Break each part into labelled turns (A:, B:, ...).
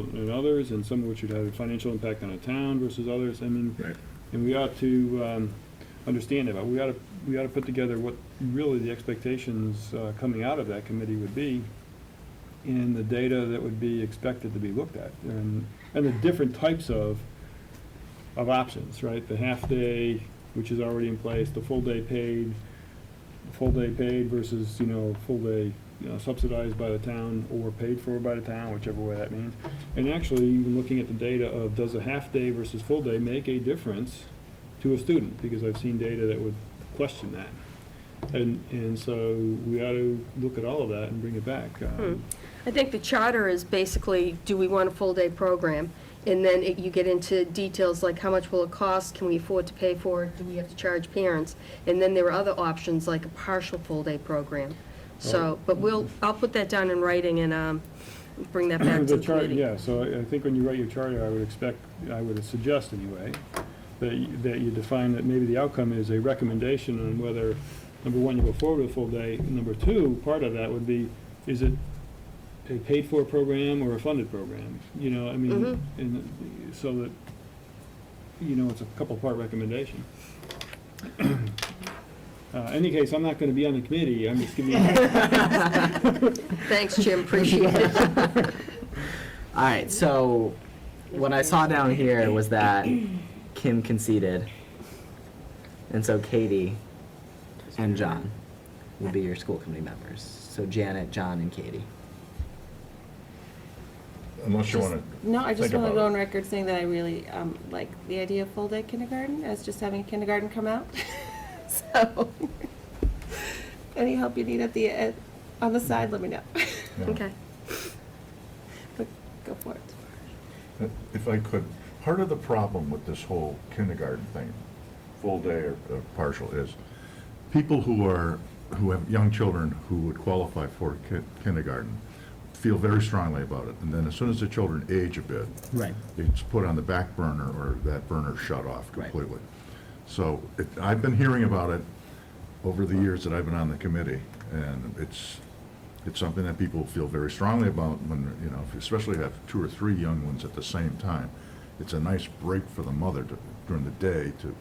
A: and others, and some of which would have a financial impact on a town versus others, I mean,
B: Right.
A: and we ought to, um, understand that, but we ought to, we ought to put together what really the expectations, uh, coming out of that committee would be, and the data that would be expected to be looked at, and, and the different types of, of options, right? The half-day, which is already in place, the full-day paid, full-day paid versus, you know, full-day you know, subsidized by the town or paid for by the town, whichever way that means. And actually, even looking at the data of does a half-day versus full-day make a difference to a student? Because I've seen data that would question that. And, and so we ought to look at all of that and bring it back. Um,
C: I think the charter is basically, do we want a full-day program? And then it- you get into details like how much will it cost, can we afford to pay for it, do we have to charge parents? And then there are other options like a partial full-day program. So, but we'll, I'll put that down in writing and um, bring that back to
A: The
C: the
A: chart,
C: committee.
A: yeah, so I I think when you write your charter, I would expect, I would suggest anyway, that you, that you define that maybe the outcome is a recommendation on whether, number one, you go forward with a full day, and number two, part of that would be, is it a paid-for program or a funded program? You know, I
C: Mhm.
A: mean, and so that, you know, it's a couple-part recommendation. Uh, any case, I'm not gonna be on the committee, I'm just giving you.
C: Thanks, Jim, appreciate it.
D: All right, so what I saw down here was that Kim conceded. And so Katie and John will be your school committee members. So Janet, John, and Katie.
B: Unless you
E: Just-
B: want to
E: No, I just
B: think
E: want to
B: about
E: go
B: it.
E: on record saying that I really um, like the idea of full-day kindergarten as just having kindergarten come out. So, any help you need at the, at- on the side, let me know.
B: Yeah.
C: Okay.
E: But Go for it.
B: If I could, part of the problem with this whole kindergarten thing, full day or or partial, is people who are, who have young children who would qualify for ki- kindergarten feel very strongly about it, and then as soon as the children age a bit,
D: Right.
B: it's put on the back burner or that burner shut off
D: Right.
B: completely. So it, I've been hearing about it over the years that I've been on the committee, and it's, it's something that people feel very strongly about when, you know, if you especially have two or three young ones at the same time. It's a nice break for the mother to, during the day to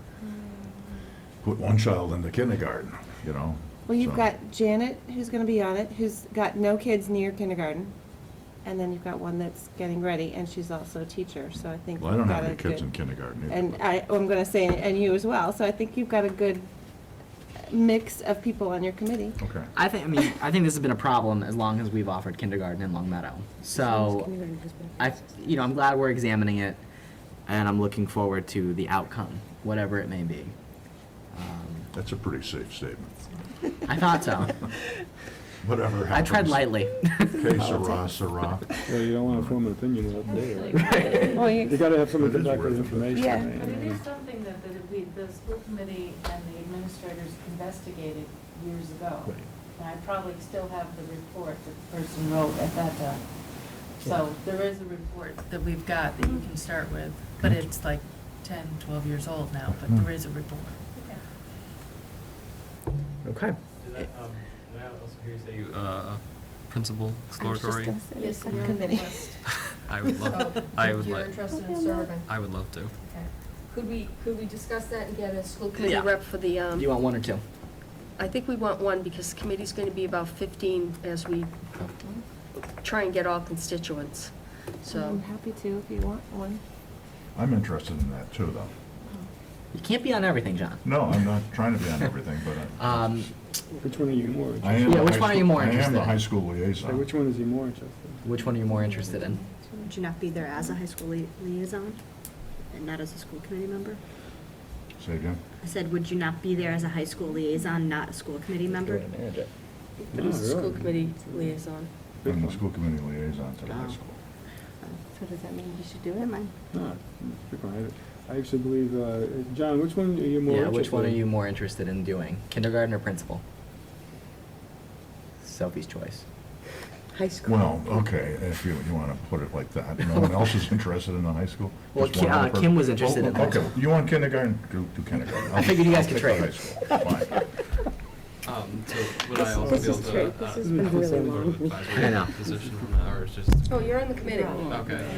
B: put one child into kindergarten, you know?
E: Well, you've
B: so-
E: got Janet, who's going to be on it, who's got no kids near kindergarten. And then you've got one that's getting ready, and she's also a teacher, so I think.
B: Well, I don't
E: you've
B: have
E: got
B: any
E: a
B: kids
E: good-
B: in kindergarten either.
E: And
B: but-
E: I, oh, I'm going to say, and you as well, so I think you've got a good mix of people on your committee.
B: Okay.
D: I think, I mean, I think this has been a problem as long as we've offered kindergarten in Long Meadow. So I, you know, I'm glad we're examining it and I'm looking forward to the outcome, whatever it may be. Um,
B: That's a pretty safe statement.
D: I thought so.
B: Whatever
D: I
B: happens.
D: tread lightly.
B: Okay, sirrah, sirrah.
A: Well, you don't wanna form an opinion without data, right?
E: Well, you-
A: You gotta have someone
B: It
A: come
B: is
A: back with
B: worth it.
A: information.
E: Yeah.
A: right?
F: But it is something that the, we, the school committee and the administrators investigated years ago.
B: Right.
F: And I probably still have the report that the person wrote at that time. So there is a report that we've got that you
A: Mm-hmm.
F: can start with, but it's like 10, 12 years old now, but
A: Hmm.
F: there is a report.
D: Okay.
G: Did I, um, did I also hear you say you, uh, principal exploratory?
F: Yes,
E: Some
F: you're on the
E: committee.
F: list.
G: I would love, I would
C: You're
G: like,
C: interested in serving.
G: I would love to.
C: Okay. Could we, could we discuss that and get a school committee
D: Yeah.
C: rep for the, um,
D: You want one or two?
C: I think we want one, because the committee's gonna be about fifteen as we try and get all constituents, so.
E: I'm happy to if you want one.
B: I'm interested in that too, though.
D: You can't be on everything, John.
B: No, I'm not trying to be on everything, but uh, I.
D: Um,
A: Which one are you more
B: I
A: interested
B: am
D: Yeah,
B: the
D: which
B: high
D: one are you
B: school-
D: more
B: I am
D: interested
B: the
D: in?
B: high school
A: in? Which
B: liaison.
A: one is he more interested
D: which one are you more interested in?
H: Would you not be there as a high school lia- liaison and not as a school committee member?
B: Say again?
H: I said, would you not be there as a high school liaison, not a school committee member?
D: manage it.
C: But he's the
A: Oh, really?
C: school committee liaison.
A: Which
B: I'm the
A: one?
B: school committee liaison to the high
D: Oh.
B: school.
H: So does that mean you should do it? Mine.
A: No, pick one. Ah, I I actually believe, uh, John, which one are you more
D: yeah,
A: interested in?
D: which one are you more interested in doing? Kindergarten or principal? Sophie's choice.
C: High school.
B: Well, okay, if you, you want to put it like that. No one else is interested in the high school?
D: Well,
B: Just one
D: Ki-
B: other
D: uh,
B: person?
D: Kim was interested in
B: Oh,
D: high
B: okay.
D: school.
B: You want kindergarten? Do do kindergarten.
D: I figured you guys could
B: I'll
D: trade.
B: take the high school. Fine.
G: Um, so would I also be
A: this
G: able
A: is
G: to,
A: great. This has been
G: uh,
A: really
G: sort of
A: long.
G: advisory
D: I know.
G: position on that, or it's just?
C: Oh, you're on the committee.
G: Okay.